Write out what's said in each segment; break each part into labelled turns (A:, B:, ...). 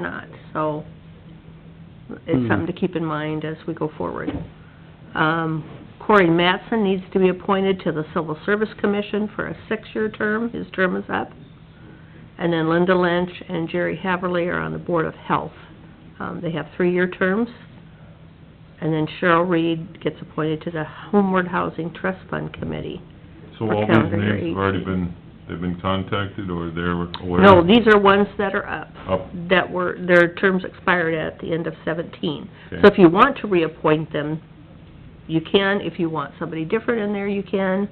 A: not, so it's something to keep in mind as we go forward. Um, Corey Mattson needs to be appointed to the Civil Service Commission for a six-year term, his term is up. And then Linda Lynch and Jerry Haverly are on the Board of Health. Um, They have three-year terms. And then Cheryl Reed gets appointed to the Homeward Housing Trust Fund Committee.
B: So
A: For
B: all these
A: calendar year
B: names have already been, they've been contacted, or they're aware?
A: No, these are ones that are up.
B: Up.
A: that were, their terms expired at the end of seventeen. So
B: Okay.
A: if you want to reappoint them, you can. If you want somebody different in there, you can.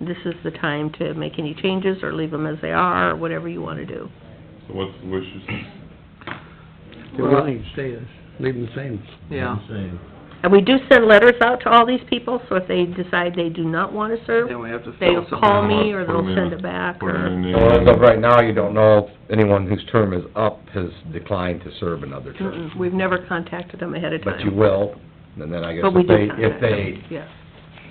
A: This is the time to make any changes or leave them as they are, or whatever you want to do.
B: So what's the wishes?
C: They wouldn't even stay this, leave them the same.
D: Yeah,
A: And we do send letters out to all these people, so if they decide they do not want to serve,
D: then we have to
A: they'll
D: fill
A: call
D: something.
A: me or
B: Put 'em
A: they'll
B: in
A: send
B: a-
A: it back
B: put 'em
A: or...
B: in a
E: So as of
B: name.
E: right now, you don't know if anyone whose term is up has declined to serve another term.
A: Mm-mm, We've never contacted them ahead of time.
E: But you will, and then I guess
A: But we
E: if
A: do
E: they, if
A: contact them,
E: they
A: yes.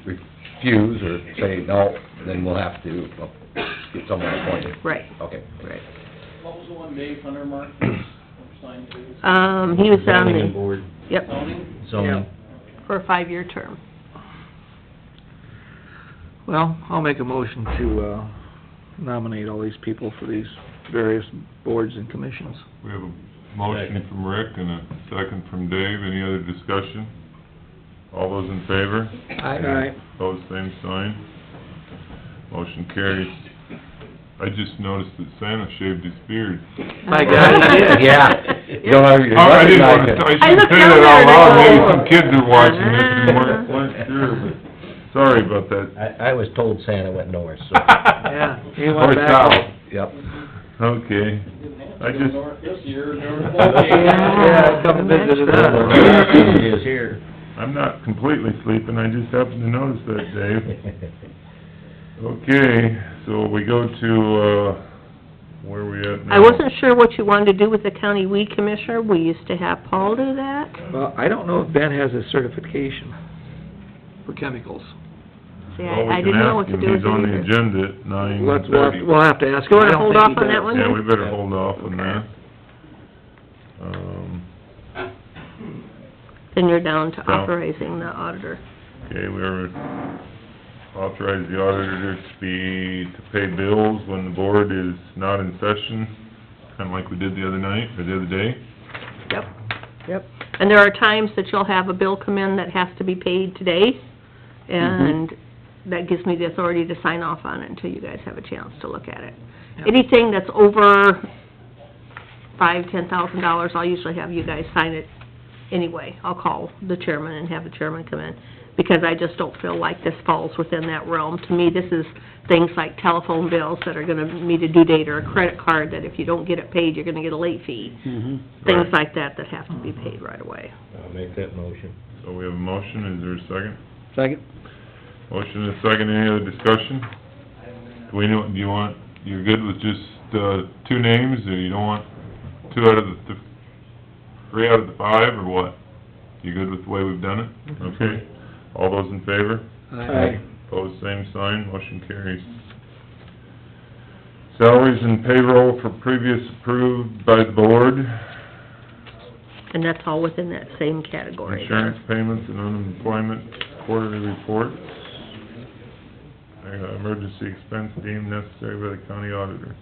E: refuse or say no, then we'll have to uh, get someone appointed.
A: Right,
E: Okay.
A: right.
F: What was the one Dave Hunter marked as assigned to?
A: Um, he was on
G: Zoning
A: the,
G: board,
A: yep,
F: Zoning?
G: zoning.
A: for a five-year term.
D: Well, I'll make a motion to, uh, nominate all these people for these various boards and commissions.
B: We have a motion from Rick and a second from Dave. Any other discussion? All those in favor?
C: Aye.
B: Pose same sign. Motion carries. I just noticed that Santa shaved his beard.
D: My God, I did.
E: Yeah. You don't have- you
B: Oh, I didn't want to,
E: recognize
A: I
B: I
E: it.
B: should
A: looked
B: say
A: down
B: that
A: there
B: out
A: and I
B: loud,
A: go,
B: maybe some kids are watching this and
A: "Ah."
B: weren't, weren't sure, but, sorry about that.
G: I, I was told Santa went north, so.
B: Yeah,
D: he went back.
E: Yep.
B: Okay.
F: Didn't have
B: I
F: to go
B: just-
F: north this year, there was
D: Yeah, come visit us.
G: He is here.
B: I'm not completely sleeping, I just happened to notice that, Dave. Okay, so we go to, uh, where are we at now?
A: I wasn't sure what you wanted to do with the county weed commissioner. We used to have Paul do that.
D: Well, I don't know if Ben has a certification for chemicals.
A: See,
B: Well, we
A: I I
B: can
A: didn't know what to
B: ask him.
A: do with
B: He's on the
A: it either.
B: agenda at nine
D: Let's,
B: thirty.
D: we'll, we'll have to ask him.
A: You wanna
D: I don't
A: hold
D: think
A: off
D: he
A: on
D: does.
A: that one?
B: Yeah, we better hold off on that. Um,
A: Then you're down to
B: No.
A: authorizing the auditor.
B: okay, we are authorized the auditor to be, to pay bills when the board is not in session, kinda like we did the other night, or the other day.
A: Yep. Yep. And there are times that you'll have a bill come in that has to be paid today, and that gives me the authority to sign off on it until you guys have a chance to look at it.
D: Yep.
A: Anything that's over five, ten thousand dollars, I'll usually have you guys sign it anyway. I'll call the chairman and have the chairman come in, because I just don't feel like this falls within that realm. To me, this is things like telephone bills that are gonna meet a due date, or a credit card that if you don't get it paid, you're gonna get a late fee
C: Mhm.
A: things like that that have to be paid right away.
G: I'll make that motion.
B: So we have a motion, is there a second?
C: Second?
B: Motion and a second, any other discussion? Do we know, do you want, you're good with just, uh, two names, or you don't want two out of the, th- three out of the five, or what? You good with the way we've done it? Okay, all those in favor?
C: Aye.
B: Pose same sign, motion carries. Salaries and payroll for previous approved by the board,
A: And that's all within that same category.
B: insurance payments and unemployment quarterly reports. Uh, Emergency expense deemed necessary by the county auditor.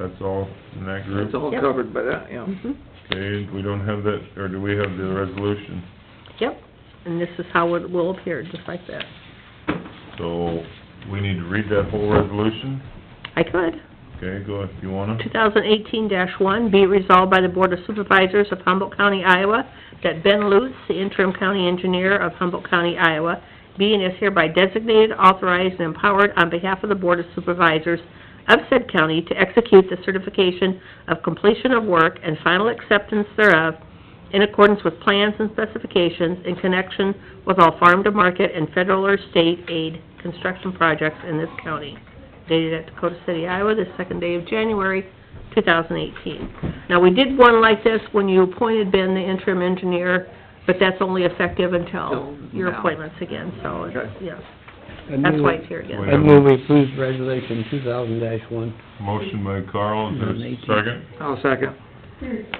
B: That's all in that group?
D: It's all
A: Yep.
D: covered uh, by that, yeah.
A: Mhm.
B: Okay, we don't have that, or do we have the resolution?
A: Yep, and this is how it will appear, just like that.
B: So, we need to read that whole resolution?
A: I could.
B: Okay, go if you wanna.
A: 2018-1, be it resolved by the Board of Supervisors of Humboldt County, Iowa, that Ben Lutz, the interim county engineer of Humboldt County, Iowa, be and is hereby designated, authorized, and empowered on behalf of the Board of Supervisors of said county to execute the certification of completion of work and final acceptance thereof in accordance with plans and specifications in connection with all farm-to-market and federal or state aid construction projects in this county dated at Dakota City, Iowa, the second day of January, 2018. Now, we did one like this when you appointed Ben the interim engineer, but that's only effective until
D: Till
A: your
D: now.
A: appointments again, so, it's-
D: Okay.
A: yes,
C: I
A: that's
C: move-
A: why it's here again.
B: Wait.
C: I move we approve resolution two thousand dash one.
B: Motion by Carl, is there a second?
D: I'll second.